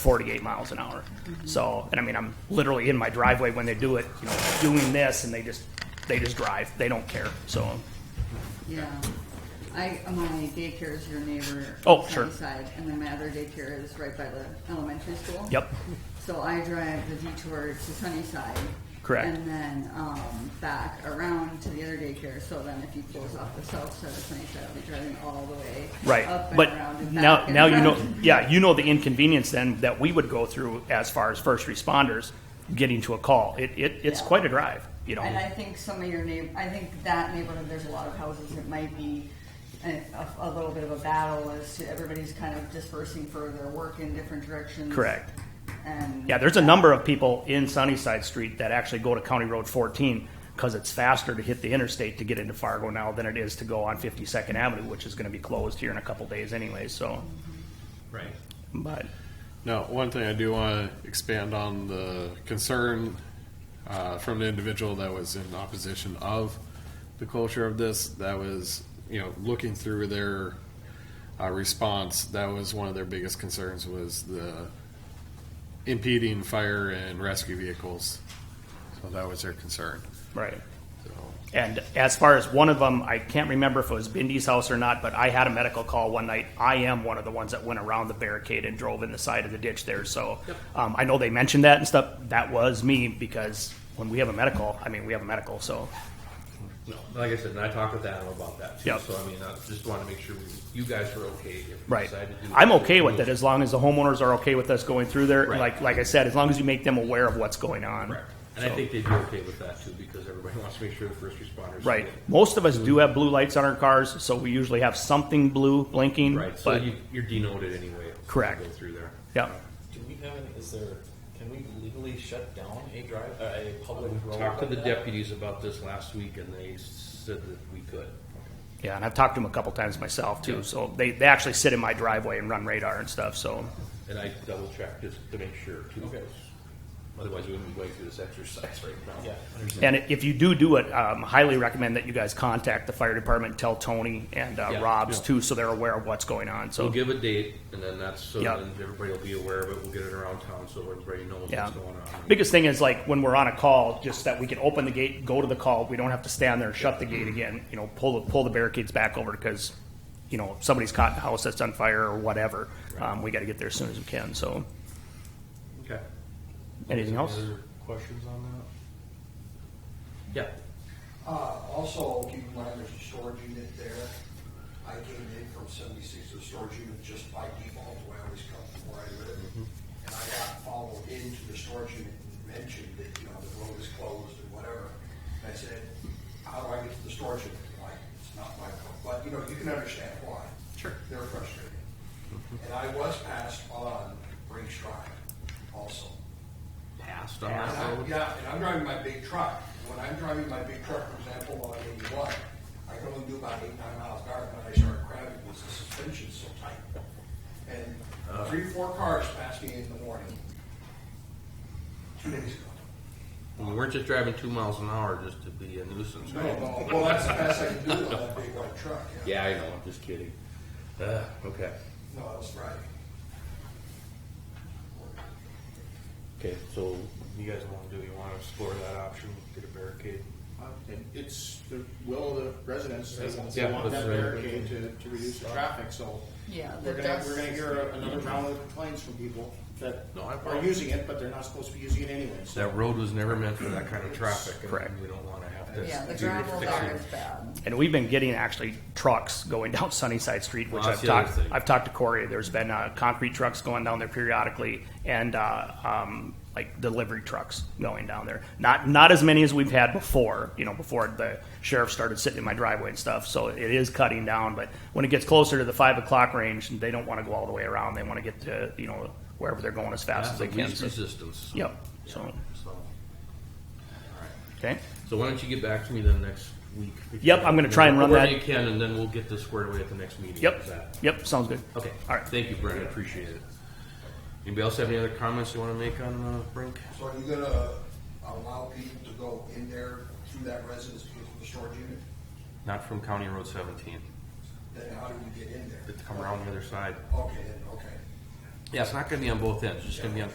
48 miles an hour. So, and I mean, I'm literally in my driveway when they do it, you know, doing this, and they just, they just drive. They don't care. So, Yeah, I, my daycare is your neighbor. Oh, on sure. the Side, and then my other daycare is right by the elementary school. Yep. So I drive the detour to Sunnyside. Correct. And then, um, back around to the other daycare, so then if you close off the south side of Sunnyside, I'll be driving all the way. right. Up and around But and now, back and now you know, around. yeah, you know the inconvenience then that we would go through as far as first responders getting to a call. It, it, it's Yeah. quite a drive, you know. And I think some of your neigh, I think that neighborhood, there's a lot of houses, it might be eh, a, a little bit of a battle as to everybody's kind of dispersing for their work in different directions. Correct. And. Yeah, there's a number of people in Sunnyside Street that actually go to County Road 14 because it's faster to hit the interstate to get into Fargo now than it is to go on 52nd Avenue, which is going to be closed here in a couple days anyway. So, Right. but Now, one thing I do want to expand on the concern uh, from the individual that was in opposition of the culture of this, that was, you know, looking through their uh, response, that was one of their biggest concerns was the impeding fire and rescue vehicles. So that was their concern. right. So, And as far as one of them, I can't remember if it was Bindy's house or not, but I had a medical call one night. I am one of the ones that went around the barricade and drove in the side of the ditch there. So um, I know they mentioned that and stuff. That was me because when we have a medical, I mean, we have a medical. So, No, like I said, and I talked with Adam about that too. Yep. So I mean, I just want to make sure we- you guys are okay if we Right. decide to do. I'm okay with it as long as the homeowners are okay with us going through there. Right. Like, like I said, as long as you make them aware of what's going on. Correct. And So- I think they'd be okay with that too because everybody wants to make sure the first responders. Right. get- Most of us do have blue lights on our cars, so we usually have something blue blinking. Right. So But, you, you're denoted anyway. if you Correct. Go through there. yeah. Do we have, any- is there, can we legally shut down a drive, uh, a public road? Talked to like the that? deputies about this last week and they said that we could. Yeah. And I've talked to them a couple times myself too. So they, they actually sit in my driveway and run radar and stuff. So, And I double checked just to make sure too. Okay. Otherwise, we wouldn't be going through this exercise right now. Yeah. and if you do do it, um, highly recommend that you guys contact the fire department, tell Tony and uh, Yeah. Rob's Yeah. too, so they're aware of what's going on. So We'll give a date, and then that's, so Yeah. then everybody will be aware of it, we'll get it around town, so everybody knows Yeah. what's going on. Biggest thing is like when we're on a call, just that we can open the gate, go to the call. We don't have to stand there and shut the gate Mm-hmm. again. You know, pull the, pull the barricades back over because, you know, if somebody's caught in a house that's on fire or whatever, um, we got to get there as soon as we can. So, Okay. anything else? Any other Questions on that? Yeah. Uh, also, keep in mind, there's a storage unit there. I came in from seventy-six to the storage unit just by default, the way I always come from where I live. And I got followed into the storage unit and mentioned that, you know, the road is closed and whatever. And I said, how do I get to the storage unit? Like, it's not my fault, but, you know, you can understand why. Sure. They're frustrated. And I was passed on Briggs Drive also. Passed on And that I- road? Yeah, and I'm driving my big truck. When I'm driving my big truck, for example, on eighty-one, I can only do about eight, nine miles an hour, and I start crabbing because the suspension's so tight. And three, four cars passed me in the morning, two days ago. And We weren't just driving two miles an hour just to be a nuisance, No, right? no, well, that's the best I can do on that big white truck, yeah. Yeah, I know, I'm just kidding. Uh, okay. No, that was Friday. Okay, so you guys wanna do, you wanna explore that option, get a barricade? Uh, it- It's the will of the residents, they want, Yeah, they want that's that right. barricade to, to reduce the traffic, so. Yeah, We're the gonna, we're dust. gonna hear another round of complaints from people that No, I are follow. using it, but they're not supposed to be using it anyway, so. That road was never meant for that kind of traffic. and Correct. We don't wanna have to. Yeah, the do gravel there fixing. is bad. And we've been getting actually trucks going down Sunnyside Street, which Well, I've that's the other talked, thing. I've talked to Corey. There's been uh, concrete trucks going down there periodically and uh, um, like delivery trucks going down there. Not, not as many as we've had before, you know, before the sheriff started sitting in my driveway and stuff. So it is cutting down. But when it gets closer to the five o'clock range, they don't want to go all the way around. They want to get to, you know, wherever they're going as fast That's as the they can. least So- resistance. Yep, so, So. okay. So why don't you get back to me then next week? Yep, I'm gonna try and run Wherever that- you can, and then we'll get this squared away at the next meeting. Yep, Is that- yep, sounds good. Okay. All right. Thank you, Brent. I appreciate it. Anybody else have any other comments you want to make on uh, Brink? So are you gonna allow people to go in there through that residence with the storage unit? Not from County Road 17. Then how do we get in there? It's come around the other side. Okay, then, okay. Yeah, it's not gonna be on both ends, it's just gonna be on